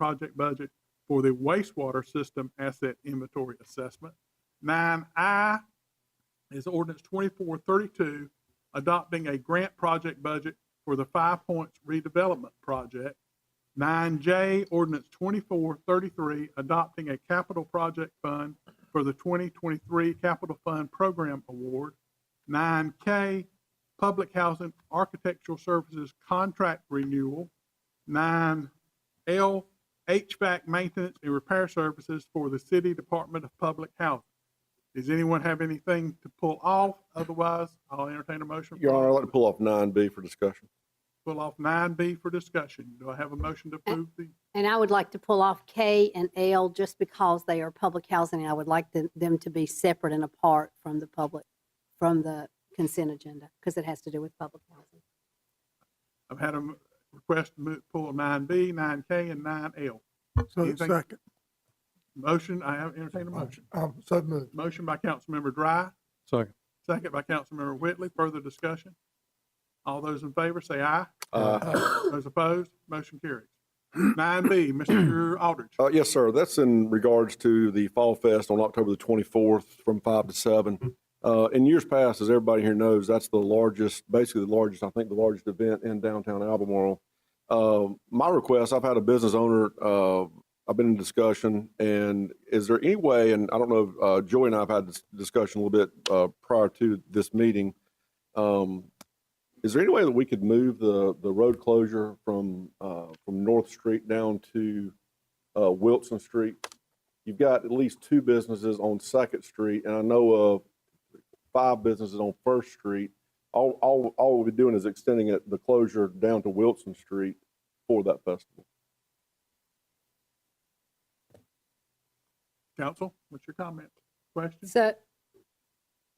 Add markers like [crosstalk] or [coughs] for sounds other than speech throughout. project budget for the wastewater system asset inventory assessment. Nine I is ordinance twenty-four thirty-two, adopting a grant project budget for the Five Points redevelopment project. Nine J, ordinance twenty-four thirty-three, adopting a capital project fund for the twenty twenty-three Capital Fund Program Award. Nine K, Public Housing Architectural Services Contract Renewal. Nine L, HVAC Maintenance and Repair Services for the City Department of Public Housing. Does anyone have anything to pull off? Otherwise, I'll entertain a motion. Your Honor, I'd like to pull off nine B for discussion. Pull off nine B for discussion. Do I have a motion to approve the, And I would like to pull off K and L just because they are public housing. and I would like them- them to be separate and apart from the public, from the consent agenda, because it has to do with public housing. I've had a m- request to mo- pull nine B, nine K, and nine L. So Anything- second. Motion, I have entertained a motion. Oh, Um, so moved. Motion by Councilmember Dry, Second. second by Councilmember Whitley. Further discussion? All those in favor say aye. Uh, Those opposed, motion carries. Nine B, Mr. Aldridge. uh, yes, sir. That's in regards to the Fall Fest on October the twenty-fourth from five to seven. Uh, in years past, as everybody here knows, that's the largest, basically the largest, I think, the largest event in downtown Albemarle. Uh, my request, I've had a business owner, uh, I've been in discussion and is there any way, and I don't know, uh, Joey and I have had this discussion a little bit, uh, prior to this meeting. Um, Is there any way that we could move the, the road closure from, uh, from North Street down to, uh, Wilson Street? You've got at least two businesses on Second Street, and I know of five businesses on First Street. All, all, all we'll be doing is extending it, the closure down to Wilson Street for that festival. Council, what's your comment? Question? So,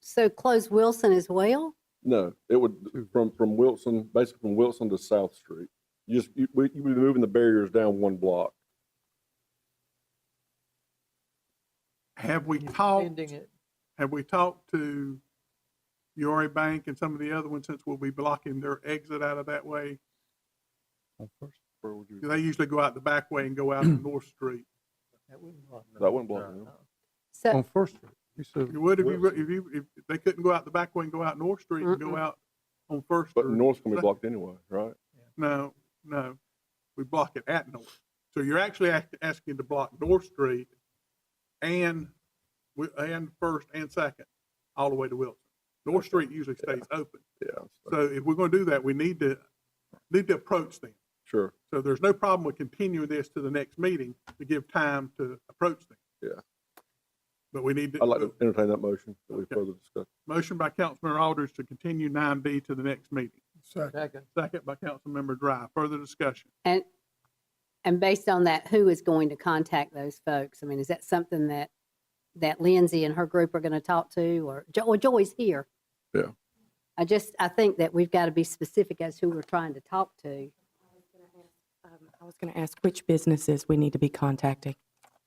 so close Wilson as well? No, it would, from, from Wilson, basically from Wilson to South Street. You Just, you, we- you'd be moving the barriers down one block. Have we talked, Ending it. have we talked to Yori Bank and some of the other ones since we'll be blocking their exit out of that way? Where would you- They usually go out the back way and go out on North Street. That wouldn't block them. That wouldn't block them. So, On First Street, you said, You would if you, if you, if if they couldn't go out the back way and go out North Street and go Mm-mm. out on First But Street. North's gonna be blocked anyway, right? No, no, we block it at North. So you're actually act- asking to block North Street and, wi- and First and Second, all the way to Wilson. North Street usually stays open. Yeah, so- So if we're gonna do that, we need to, need to approach them. sure. So there's no problem with continuing this to the next meeting to give time to approach them. Yeah. But we need to. I'd like to entertain that motion that we Okay. further discuss. Motion by Councilmember Aldridge to continue nine B to the next meeting. Second. Second, Second by Councilmember Dry. Further discussion. and, and based on that, who is going to contact those folks? I mean, is that something that, that Lindsay and her group are going to talk to, or, Jo- well, Joy's here? Yeah. I just, I think that we've got to be specific as who we're trying to talk to. Um, I was going to ask which businesses we need to be contacting.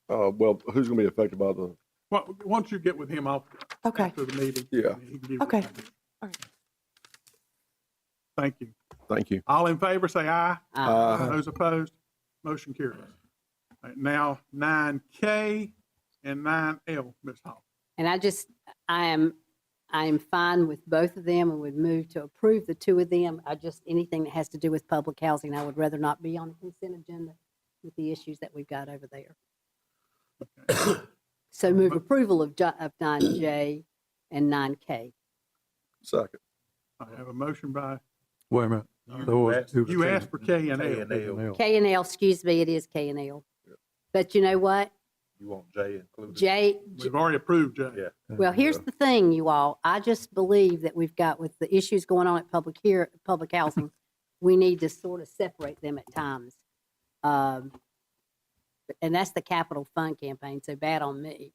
Uh, well, who's gonna be affected by the, Well, once you get with him, I'll, Okay, after the meeting. Yeah. he can give you- Okay. All right. Thank you. thank you. All in favor, say aye. Uh, Those opposed, motion carries. All right, Now, nine K and nine L, Ms. Hall. And I just, I am, I am fine with both of them and would move to approve the two of them. I just, anything that has to do with public housing, I would rather not be on the consent agenda with the issues that we've got over there. [coughs] So move approval of, ju- of 9J and 9K. Second. I have a motion by, wait a minute. There was two you asked for K and J L. and L, nails. K and L, excuse me, it is K and L. But you know what? you want J included? J, J- We've already approved J. Yeah. Well, here's the thing, you all. I just believe that we've got with the issues going on at public here, public housing, we need to sort of separate them at times. Um, And that's the capital fund campaign, so bad on me.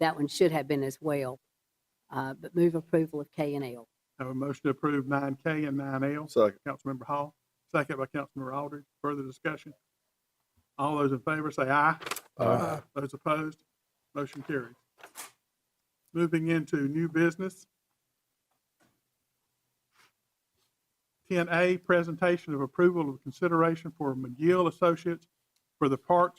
That one should have been as well. Uh, But move approval of K and L. I Have a motion to approve nine K and nine L. Second. Councilmember Hall, second by Councilmember Aldridge. Further discussion? All those in favor say aye. Aye. Those opposed, motion carries. Moving into new business. Ten A, presentation of approval of consideration for McGill Associates for the Parks